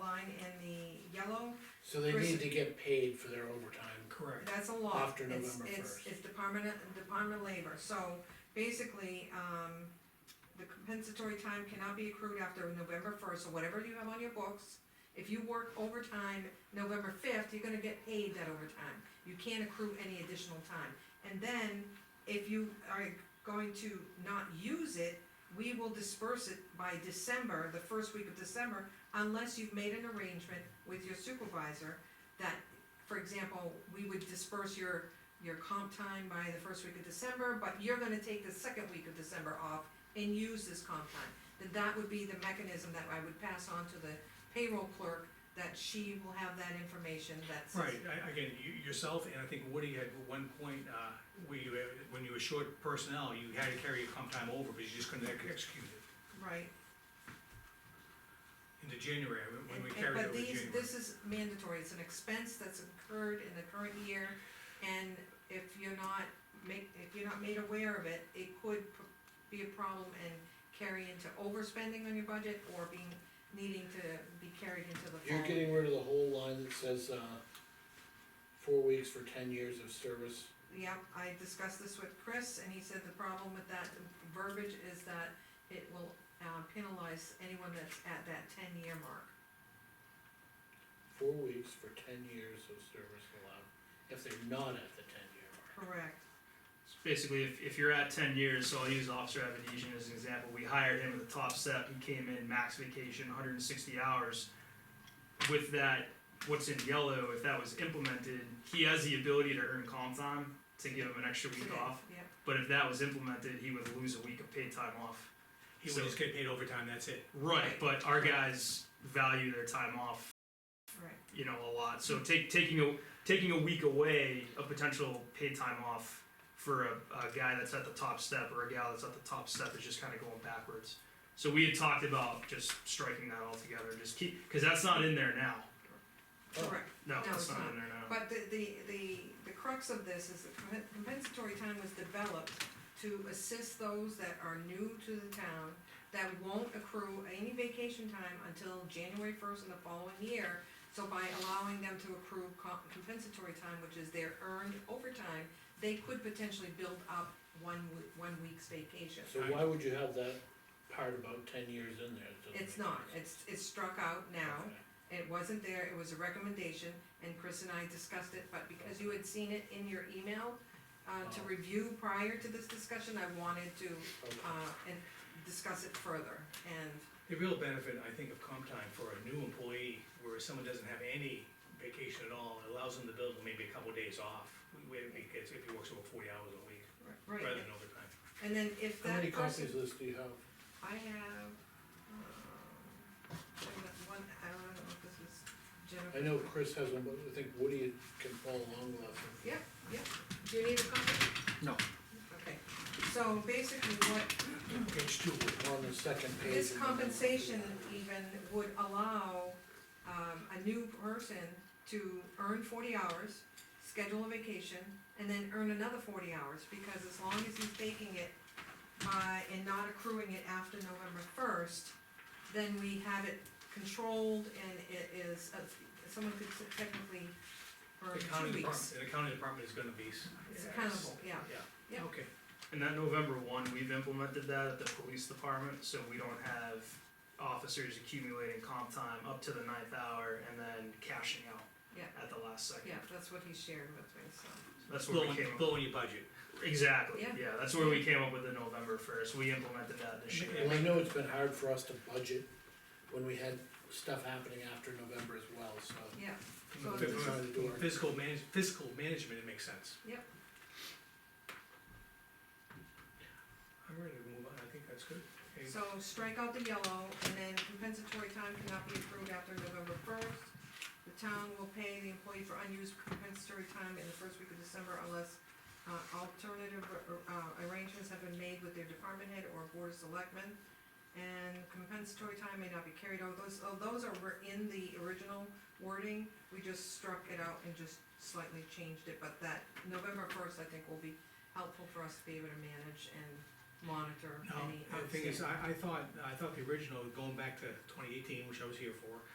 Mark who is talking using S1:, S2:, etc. S1: So they
S2: Person-
S1: need to get paid for their overtime.
S3: Correct.
S2: That's a law.
S1: After
S2: It's-
S1: November
S2: it's-
S1: 1st.
S2: It's Department, of- Department of Labor, so basically, um, the compensatory time cannot be accrued after November first, so whatever you have on your books, if you work overtime November fifth, you're gonna get paid that overtime, you can't accrue any additional time. And then, if you are going to not use it, we will disperse it by December, the first week of December, unless you've made an arrangement with your supervisor that, for example, we would disperse your, your comp time by the first week of December, but you're gonna take the second week of December off and use this comp time. Then that would be the mechanism that I would pass on to the payroll clerk, that she will have that information that's.
S3: Right, I, again, you, yourself, and I think Woody had at one point, uh, where you, had- when you were short personnel, you had to carry your comp time over, because you just couldn't ex- execute it
S2: Right.
S3: into January, when- when we
S2: And-
S3: carried it over
S2: But these,
S3: January.
S2: this is mandatory, it's an expense that's incurred in the current year, and if you're not make, if you're not made aware of it, it could p- be a problem and carry into overspending on your budget, or being, needing to be carried into the fall.
S1: You're getting rid of the whole line that says, uh, four weeks for ten years of service.
S2: Yep, I discussed this with Chris, and he said the problem with that verbiage is that it will uh, penalize anyone that's at that ten-year mark.
S1: Four weeks for ten years of service allowed, if they're not at the ten year mark.
S2: Correct.
S4: So basically, if, if you're at 10 years, so I'll use Officer Avedisian as an example. We hired him with a top step. He came in max vacation, 160 hours. With that, what's in yellow, if that was implemented, he has the ability to earn comp time to give him an extra week off.
S2: Yep,
S4: But if that was implemented, he would lose a week of paid time off.
S3: He would just get paid overtime, that's it.
S4: Right. But our guys value their time off
S2: right.
S4: you know a lot. So take, taking a taking a week away of potential paid time off for a, a guy that's at the top step or a gal that's at the top step is just kind of going backwards. So we had talked about just striking that altogether, just keep because that's not in there now.
S1: Oh.
S2: Correct.
S4: No,
S2: No,
S4: that's
S2: it's
S4: not,
S2: not.
S4: in there now.
S2: But the, the, the, the crux of this is that compen- compensatory time was developed to assist those that are new to the town, that won't accrue any vacation time until January first in the following year. So by allowing them to accrue co- compensatory time, which is their earned overtime, they could potentially build up one, w- one week's vacation.
S1: So why would you have that part about ten years in there? It doesn't
S2: It's
S1: make
S2: not,
S1: sense.
S2: it's, it's struck out now.
S1: Okay.
S2: It wasn't there, it was a recommendation, and Chris and I discussed it, but because you had seen it in your email, uh, to
S1: Oh.
S2: review prior to this discussion, I wanted to,
S1: Okay.
S2: uh, and discuss it further, and,
S3: The real benefit, I think, of comp time for a new employee, where someone doesn't have any vacation at all, it allows them to build maybe a couple days off, where he gets, if he works over forty hours a week, rather
S2: right,
S3: than overtime.
S2: and then if
S1: How many
S2: that
S1: copies of
S2: person,
S1: this do you have?
S2: I have, um, one, I don't know if this is Jennifer.
S1: I know Chris has one, but I think Woody can follow along with us.
S2: Yep, yep, do you need a copy?
S4: No.
S2: Okay, so basically what
S3: Page two,
S1: On the second page.
S2: This compensation even would allow, um, a new person to earn forty hours, schedule a vacation, and then earn another forty hours, because as long as he's taking it, uh, and not accruing it after November first, then we have it controlled and it is, uh, someone could technically
S3: the
S2: earn
S3: county
S2: two
S3: department,
S2: weeks.
S3: the county department is gonna be. s-
S2: It's accountable, yeah,
S3: Yeah,
S2: Yeah.
S3: okay.
S4: And that November one, we've implemented that at the police department, so we don't have officers accumulating comp time up to the ninth hour and then cashing out
S2: Yeah.
S4: at the last second.
S2: yeah, that's what he shared with me, so.
S4: That's where we
S3: Blowing,
S4: came up.
S3: blowing your budget.
S4: Exactly,
S2: Yeah.
S4: yeah, that's where we came up with the November first, we implemented that this year.
S1: Well, I know it's been hard for us to budget when we had stuff happening after November as well, so.
S2: Yeah, So
S1: We decided to do our-
S3: Fiscal manage, fiscal management, it makes sense.
S2: Yep.
S3: I'm ready to move on, I think that's good. Okay.
S2: so strike out the yellow, and then compensatory time cannot be approved after November first. The town will pay the employee for unused compensatory time in the first week of December unless, uh, alternative, uh, arrangements have been made with their department head or board of selectmen. And compensatory time may not be carried over, those, oh, those are, were in the original wording, we just struck it out and just slightly changed it, but that November first, I think, will be helpful for us to be able to manage and monitor
S3: No,
S2: any
S3: the thing is,
S2: outstanding.
S3: I, I thought, I thought the original, going back to twenty eighteen, which I was here for,